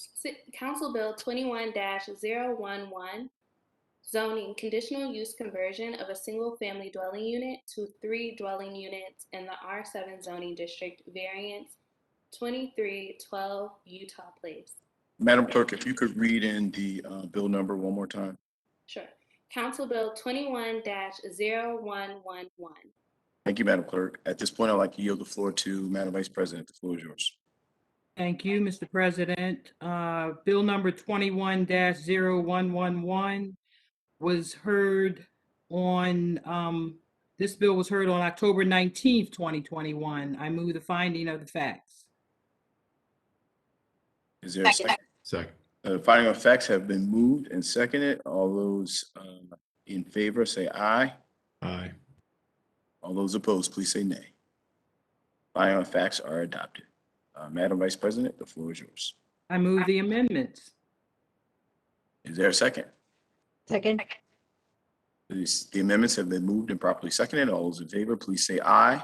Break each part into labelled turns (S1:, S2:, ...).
S1: Si- Council Bill 21-011, zoning conditional use conversion of a single-family dwelling unit to three dwelling units in the R7 zoning district variance 2312 Utah Place.
S2: Madam Clerk, if you could read in the uh, bill number one more time.
S1: Sure. Council Bill 21-0111.
S2: Thank you, Madam Clerk. At this point, I'd like to yield the floor to Madam Vice President. The floor is yours.
S3: Thank you, Mr. President. Uh, Bill number 21-0111 was heard on, um, this bill was heard on October 19th, 2021. I move the finding of the facts.
S2: Is there a second?
S4: Second.
S2: Uh, finding of facts have been moved and seconded. All those uh, in favor say aye.
S4: Aye.
S2: All those opposed, please say nay. Finding of facts are adopted. Uh, Madam Vice President, the floor is yours.
S3: I move the amendments.
S2: Is there a second?
S5: Second.
S2: These- The amendments have been moved and properly seconded. All those in favor, please say aye.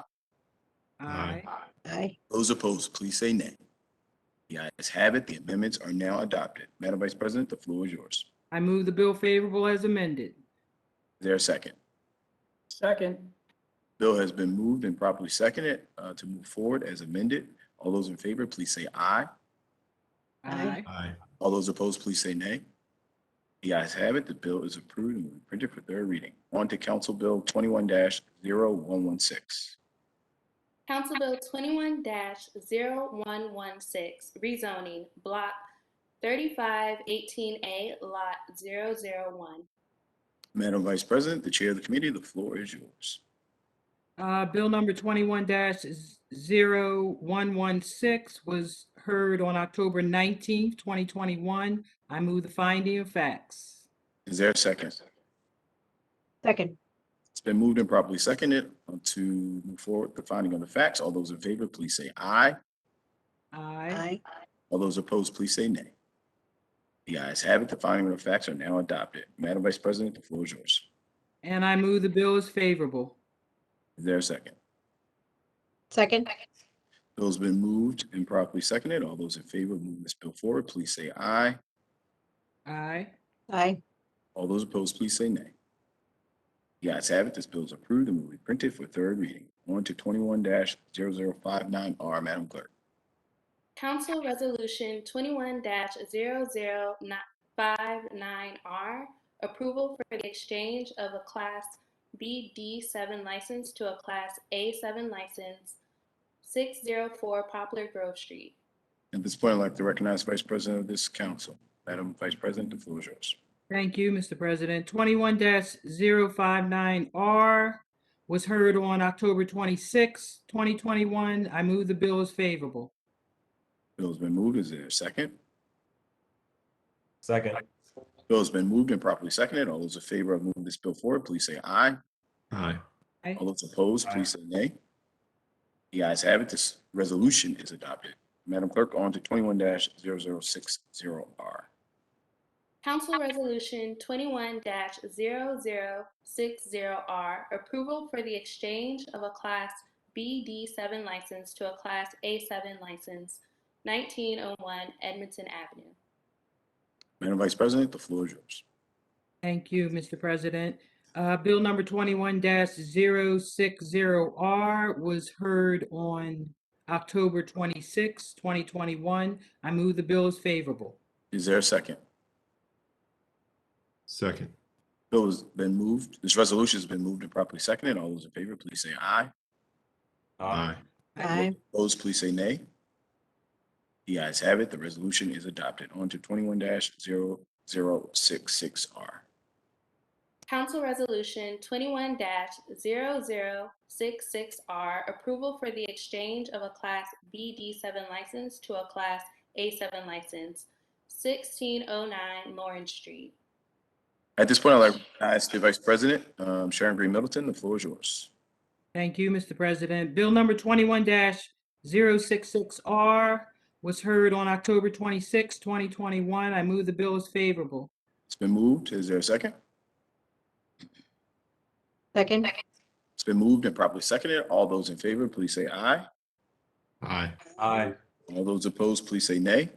S4: Aye.
S5: Aye.
S2: Those opposed, please say nay. The ayes have it. The amendments are now adopted. Madam Vice President, the floor is yours.
S3: I move the bill favorable as amended.
S2: Is there a second?
S6: Second.
S2: Bill has been moved and properly seconded uh, to move forward as amended. All those in favor, please say aye.
S5: Aye.
S4: Aye.
S2: All those opposed, please say nay. The ayes have it. The bill is approved and will be printed for third reading. On to Council Bill twenty-one 116
S1: Council Bill 21-0116, rezoning Block 3518A Lot 001.
S2: Madam Vice President, the Chair of the Committee, the floor is yours.
S3: Uh, Bill number 21-0116 was heard on October 19th, 2021. I move the finding of facts.
S2: Is there a second?
S5: Second.
S2: It's been moved and properly seconded uh, to move forward the finding of the facts. All those in favor, please say aye.
S3: Aye.
S5: Aye.
S2: All those opposed, please say nay. The ayes have it. The finding of facts are now adopted. Madam Vice President, the floor is yours.
S3: And I move the bill is favorable.
S2: Is there a second?
S5: Second.
S2: Bill's been moved and properly seconded. All those in favor of moving this bill forward, please say aye.
S3: Aye.
S5: Aye.
S2: All those opposed, please say nay. The ayes have it. This bill is approved and will be printed for third reading. On to twenty-one 59 R, Madam Clerk.
S1: Council Resolution twenty-one 59 R, approval for the exchange of a Class BD seven license to a Class A seven license, six zero four Poplar Grove Street.
S2: At this point, I'd like to recognize Vice President of this council. Madam Vice President, the floor is yours.
S3: Thank you, Mr. President. Twenty-one 59 R was heard on October 26, twenty twenty-one. I move the bill is favorable.
S2: Bill's been moved. Is there a second?
S7: Second.
S2: Bill has been moved and properly seconded. All those in favor of moving this bill forward, please say aye.
S4: Aye.
S2: All those opposed, please say nay. The ayes have it. This resolution is adopted. Madam Clerk, on to twenty-one 60 R.
S1: Council Resolution twenty-one 60 R, approval for the exchange of a Class BD seven license to a Class A seven license, nineteen oh one Edmonton Avenue.
S2: Madam Vice President, the floor is yours.
S3: Thank you, Mr. President. Uh, Bill number twenty-one 60 R was heard on October 26, twenty twenty-one. I move the bill is favorable.
S2: Is there a second?
S4: Second.
S2: Bill has been moved. This resolution has been moved and properly seconded. All those in favor, please say aye.
S7: Uh,
S4: Aye.
S5: Aye.
S2: Opposed, please say nay. The ayes have it. The resolution is adopted. On to twenty-one 66 R.
S1: Council Resolution twenty-one 66 R, approval for the exchange of a Class BD seven license to a Class A seven license, sixteen oh nine Lawrence Street.
S2: At this point, I'd like to ask the Vice President, um, Sharon Green Middleton, the floor is yours.
S3: Thank you, Mr. President. Bill number twenty-one 66 R was heard on October 26, twenty twenty-one. I move the bill is favorable.
S2: It's been moved. Is there a second?
S5: Second.
S2: It's been moved and properly seconded. All those in favor, please say aye.
S4: Aye.
S7: Aye.
S2: All those opposed, please say nay.